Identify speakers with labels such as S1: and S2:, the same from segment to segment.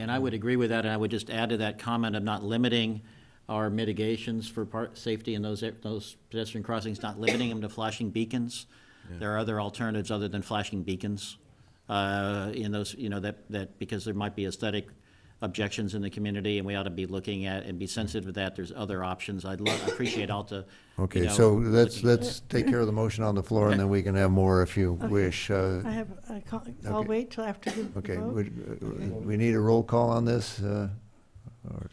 S1: And I would agree with that, and I would just add to that comment of not limiting our mitigations for part, safety in those, those pedestrian crossings, not limiting them to flashing beacons. There are other alternatives other than flashing beacons, uh, in those, you know, that, that, because there might be aesthetic objections in the community, and we ought to be looking at and be sensitive to that. There's other options. I'd love, I appreciate Alta, you
S2: Okay,
S1: know,
S2: so let's,
S1: looking-
S2: let's take care of the motion on the floor, and then we can have more if you wish. Uh,
S3: I have, a co- I'll
S2: Okay.
S3: wait till after the
S2: Okay,
S3: vote.
S2: would- uh, we need a roll call on this? uh, or-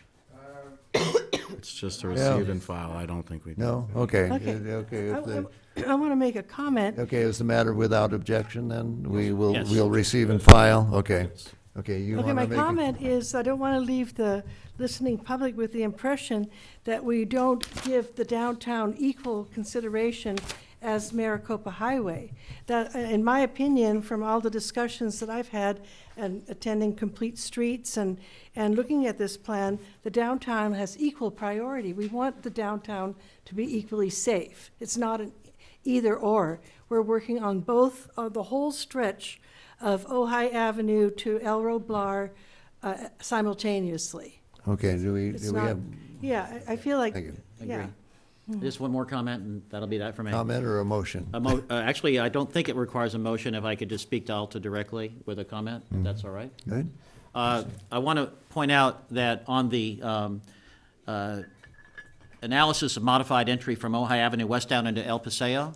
S4: It's just a
S2: Yeah.
S4: receive and file, I don't think we do.
S2: No? Okay.
S3: Okay.
S2: Uh, Okay, if the-
S3: I want to make a comment.
S2: okay, is the matter without objection, then? We will,
S1: Yes.
S2: we'll receive and file? Okay. Okay, you want
S3: Okay,
S2: to
S3: my
S2: make? a-
S3: comment is, I don't want to leave the listening public with the impression that we don't give the downtown equal consideration as Maricopa Highway. That, uh, in my opinion, from all the discussions that I've had and attending Complete Streets and, and looking at this plan, the downtown has equal priority. We want the downtown to be equally safe. It's not an either or. We're working on both, uh, the whole stretch of Ojai Avenue to El Roblar uh, simultaneously.
S2: Okay, do we,
S3: It's
S2: do we
S3: not,
S2: have
S3: yeah, I I feel like,
S2: Thank you.
S3: yeah.
S1: Agree. Just one more comment, and that'll be that for me.
S2: comment or a motion?
S1: A mo- uh, Actually, I don't think it requires a motion, if I could just speak to Alta directly with a comment, if that's all right.
S2: Good?
S1: Uh, I want to point out that on the um, uh, analysis of modified entry from Ojai Avenue west down into El Paseo,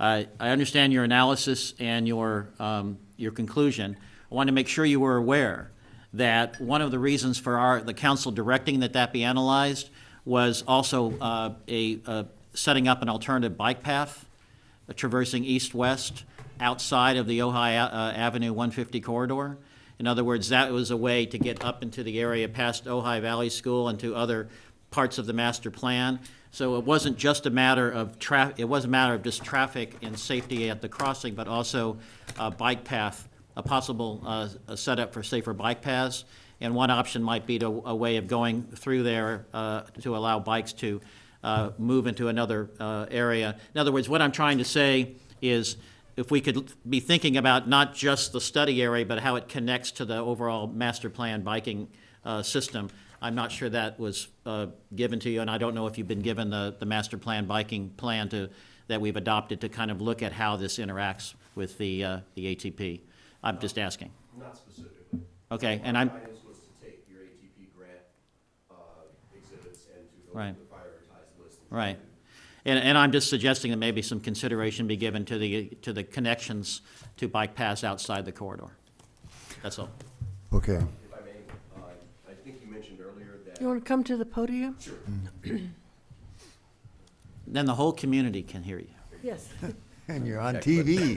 S1: I I understand your analysis and your, um, your conclusion. I wanted to make sure you were aware that one of the reasons for our, the council directing that that be analyzed was also uh, a, uh, setting up an alternative bike path uh, traversing east-west outside of the Ojai uh, Avenue 150 corridor. In other words, that was a way to get up into the area past Ojai Valley School and to other parts of the master plan. So it wasn't just a matter of tra, it was a matter of just traffic and safety at the crossing, but also a bike path, a possible uh, a setup for safer bike paths. And one option might be to, a way of going through there uh, to allow bikes to uh, move into another uh, area. In other words, what I'm trying to say is if we could be thinking about not just the study area, but how it connects to the overall master plan biking uh, system, I'm not sure that was uh, given to you, and I don't know if you've been given the, the master plan biking plan to, that we've adopted to kind of look at how this interacts with the, uh, the ATP. I'm just asking.
S5: Not specifically.
S1: Okay, and
S5: My
S1: I'm,
S5: guidance was to take your ATP grant uh, exhibits and to go
S1: Right.
S5: through the prioritized list. and
S1: Right. And, and I'm just suggesting that maybe some consideration be given to the, to the connections to bike paths outside the corridor. That's all.
S2: Okay.
S5: If I may, uh, I think you mentioned earlier that
S3: You want to come to the podium?
S1: Then the whole community can hear you.
S3: Yes,
S2: And you're on TV.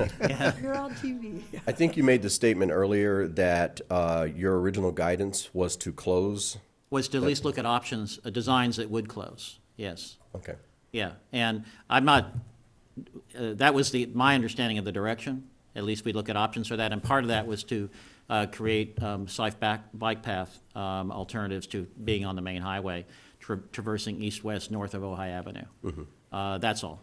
S3: you're on TV.
S5: I think you made the statement earlier that uh, your original guidance was to close.
S1: Was to at least look at options, uh, designs that would close, yes.
S5: Okay.
S1: Yeah, and I'm not, uh, that was the, my understanding of the direction. At least we look at options for that, and part of that was to uh, create um, safe back, bike path um, alternatives to being on the main highway, tra- traversing east-west north of Ojai Avenue. Uh, That's all,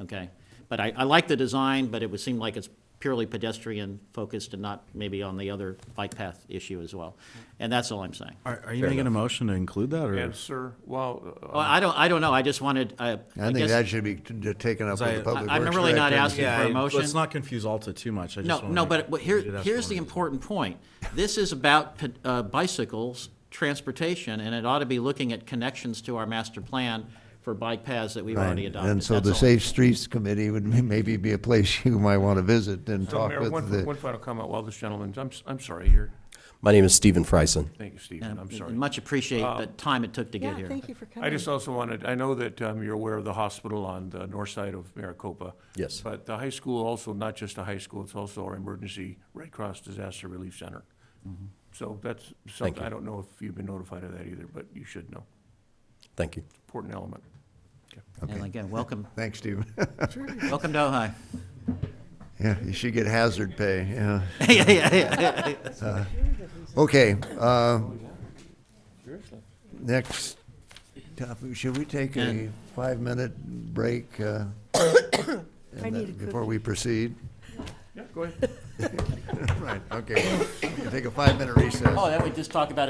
S1: okay? But I, I like the design, but it would seem like it's purely pedestrian-focused and not maybe on the other bike path issue as well. And that's all I'm saying.
S4: Are, are you making a motion to include that, or?
S6: Yes, sir. Well, uh,
S1: Well, I don't, I don't know, I just wanted, I
S2: I
S1: I
S2: think
S1: guess-
S2: that should be t- t- taken up
S4: I-
S2: with the public works
S1: I'm
S2: director.
S1: really not asking-
S4: Yeah,
S1: for a
S4: I-
S1: motion?
S4: Let's not confuse Alta too much, I just
S1: No,
S4: wanna
S1: no,
S4: make-
S1: but but here,
S4: Read it as
S1: here's
S4: one
S1: the
S4: is.
S1: important point. This is about pe- uh, bicycles, transportation, and it ought to be looking at connections to our master plan for bike paths that we've already
S2: Right.
S1: adopted.
S2: And so the
S1: That's all.
S2: Safe Streets Committee would m- maybe be a place you might want to visit and
S6: so
S2: talk
S6: Mayor,
S2: with
S6: one,
S2: the.
S6: one final comment while this gentleman, I'm, s- I'm sorry, you're,
S5: My name is Stephen Freisen.
S6: thank you, Stephen,
S1: And-
S6: I'm
S1: and
S6: sorry.
S1: Much appreciate the time it took to
S3: Yeah,
S1: get here.
S3: thank you for
S6: I
S3: coming.
S6: just also wanted, I know that um, you're aware of the hospital on the north side of Maricopa.
S5: Yes.
S6: But the high school also, not just a high school, it's also our emergency Red Cross Disaster Relief Center. So that's something,
S5: you.
S6: I don't know if you've been notified of that either, but you should know.
S5: Thank you.
S6: Important element.
S1: And again, welcome,
S2: Thanks, Stephen.
S1: welcome to Ojai.
S2: Yeah, you should get hazard pay, yeah.
S1: Yeah, yeah, yeah.
S2: Okay, uh, next topic, should we take a five-minute break? uh, and
S3: I need
S2: then-
S3: a
S2: Before
S3: cookie.
S2: we proceed?
S6: Yeah, go ahead.
S2: Right, okay, well, we can take a five-minute recess.
S1: Oh, that we just talked about